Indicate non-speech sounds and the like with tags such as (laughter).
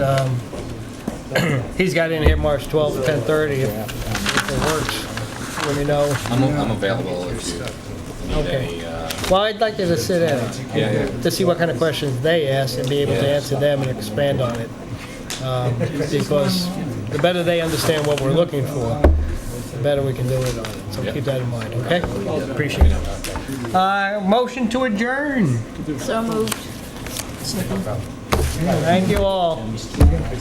Um, (clears throat) He's got in here March 12th, 10:30, if if it works, let me know. I'm, I'm available if you need Okay. any, uh, Well, I'd like you to sit in yeah, yeah. to see what kind of questions they ask and be able to answer them and expand on it. Um, Because the better they understand what we're looking for, the better we can do it on it. So keep that in mind, okay? Appreciate it. Uh, Motion to adjourn. So moved. Thank you all.